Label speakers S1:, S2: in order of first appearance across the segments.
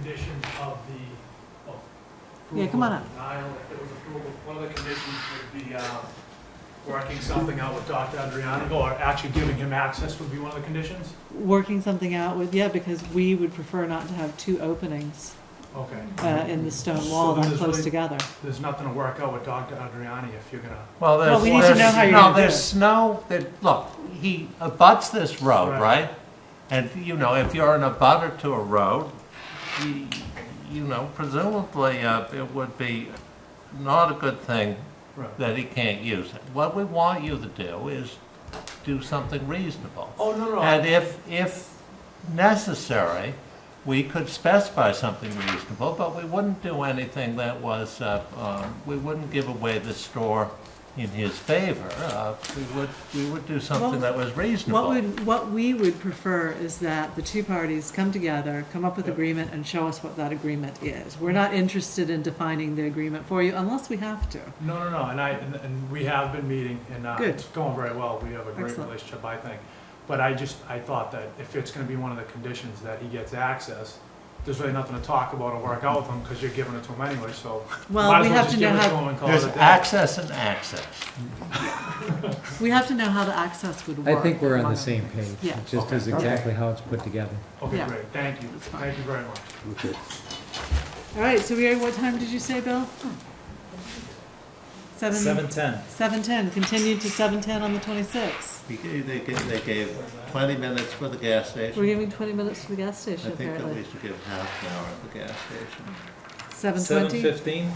S1: of the, oh.
S2: Yeah, come on up.
S1: Denial, if it was approval, one of the conditions would be, uh, working something out with Dr. Adriani, or actually giving him access would be one of the conditions?
S2: Working something out with, yeah, because we would prefer not to have two openings
S1: Okay.
S2: uh, in the stone wall
S1: So
S2: that
S1: there's
S2: close
S1: really-
S2: together.
S1: There's nothing to work out with Dr. Adriani if you're gonna,
S3: Well, there's,
S2: we need to
S3: there's-
S2: know how you're
S3: no,
S2: gonna do
S3: there's
S2: it.
S3: snow that, look, he abuts this road,
S1: Right.
S3: right? And, you know, if you're an abutter to a road, you, you know, presumably, uh, it would be not a good thing
S1: right.
S3: that he can't use it. What we want you to do is do something reasonable.
S1: Oh, no, no.
S3: And if, if necessary, we could specify something reasonable, but we wouldn't do anything that was, uh, um, we wouldn't give away the store in his favor. Uh, We would, we would do something that was
S2: What
S3: reasonable.
S2: would, what we would prefer is that the two parties come together, come up with
S1: Yeah.
S2: agreement, and show us what that agreement is. We're not interested in defining the agreement for you unless we have to.
S1: No, no, no, and I, and- and we have been meeting, and uh,
S2: Good.
S1: it's going very well, we have a great
S2: Excellent.
S1: relationship, I think. But I just, I thought that if it's gonna be one of the conditions that he gets access, there's really nothing to talk about or work out with him, because you're giving it to him anyway, so. might
S2: Well,
S1: as
S2: we have
S1: just
S2: to
S1: give
S2: know
S1: it
S2: how,
S1: him and call it
S3: There's
S1: a day.
S3: access and access.
S2: we have to know how the access would
S4: I
S2: work.
S4: think we're on
S2: among
S4: the
S2: other
S4: same
S2: things.
S4: page.
S2: Yeah.
S4: It just is exactly how it's put together.
S1: Okay,
S2: Yeah.
S1: great, thank you,
S2: That's fine.
S1: thank you very much.
S2: All right, so we are, what time did you say, Bill? Seven?
S5: ten.
S2: Seven ten, continued to seven ten on the twenty-sixth.
S6: We gave- They gave, they gave 20 minutes for the gas
S2: We're
S6: station.
S2: giving twenty minutes to the gas
S6: I
S2: station
S6: think that we
S2: apparently.
S6: should give half an hour at the gas station.
S2: Seven
S5: Seven
S2: twenty?
S5: fifteen?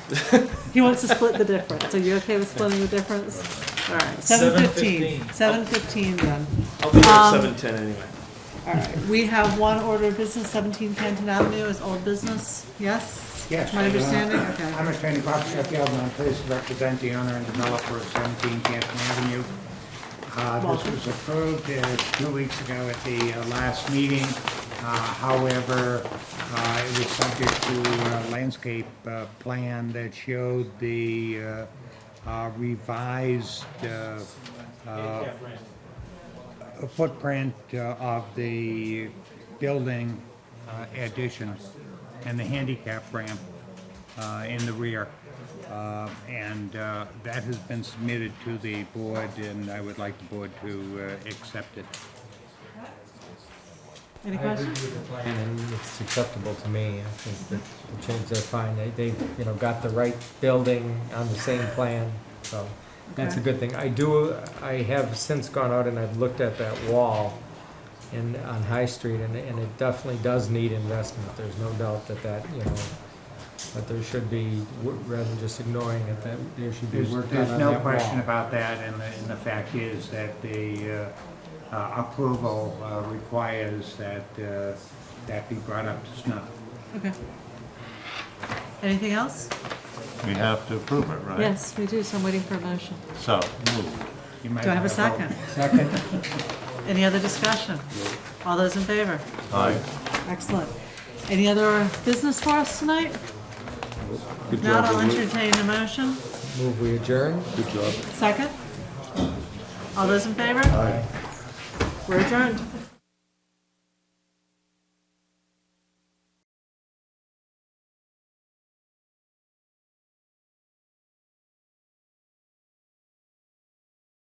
S2: He wants to split the difference. Are you okay with splitting the difference? All right, seven fifteen.
S5: 7:15.
S2: Seven fifteen then.
S5: I'll be there
S2: Um,
S5: at seven ten anyway.
S2: All right, we have one order of business, seventeen Canton Avenue is old business, yes?
S7: Yes.
S2: My understanding,
S7: uh, I'm
S2: okay.
S7: attorney Bob Sheffield, and I'm pleased to represent the owner and developer of 17 Canton Avenue. Uh, This was approved uh, two weeks ago at the uh, last meeting. Uh, However, uh, it was subject to a landscape uh, plan that showed the uh, uh, revised uh, uh, footprint uh, of the building uh, addition and the handicap ramp uh, in the rear. Uh, And uh, that has been submitted to the board, and I would like the board to uh, accept it.
S2: Any questions?
S4: And it's acceptable to me. I think that the changes are fine. They, they, you know, got the right building on the same plan, so that's a
S2: Okay.
S4: good thing. I do, I have since gone out and I've looked at that wall in, on High Street, and, and it definitely does need investment. There's no doubt that that, you know, that there should be, w- rather than just ignoring it, that there should be
S7: There's,
S4: work done
S7: there's
S4: on
S7: no
S4: that
S7: question
S4: wall.
S7: about that, and the, and the fact is that the uh, uh, approval uh, requires that uh, that be brought up to snuff.
S2: Okay. Anything else?
S3: We have to approve it, right?
S2: Yes, we do, so I'm waiting for a motion.
S3: So, moved.
S7: You might
S2: Do I have a
S7: wanna vote.
S2: second?
S4: Second?
S2: Any other discussion? All those in favor?
S3: Aye.
S2: Excellent. Any other business for us tonight? Not, I'll entertain a motion.
S4: Move we adjourn?
S2: Second? All those in favor? Aye. We're adjourned.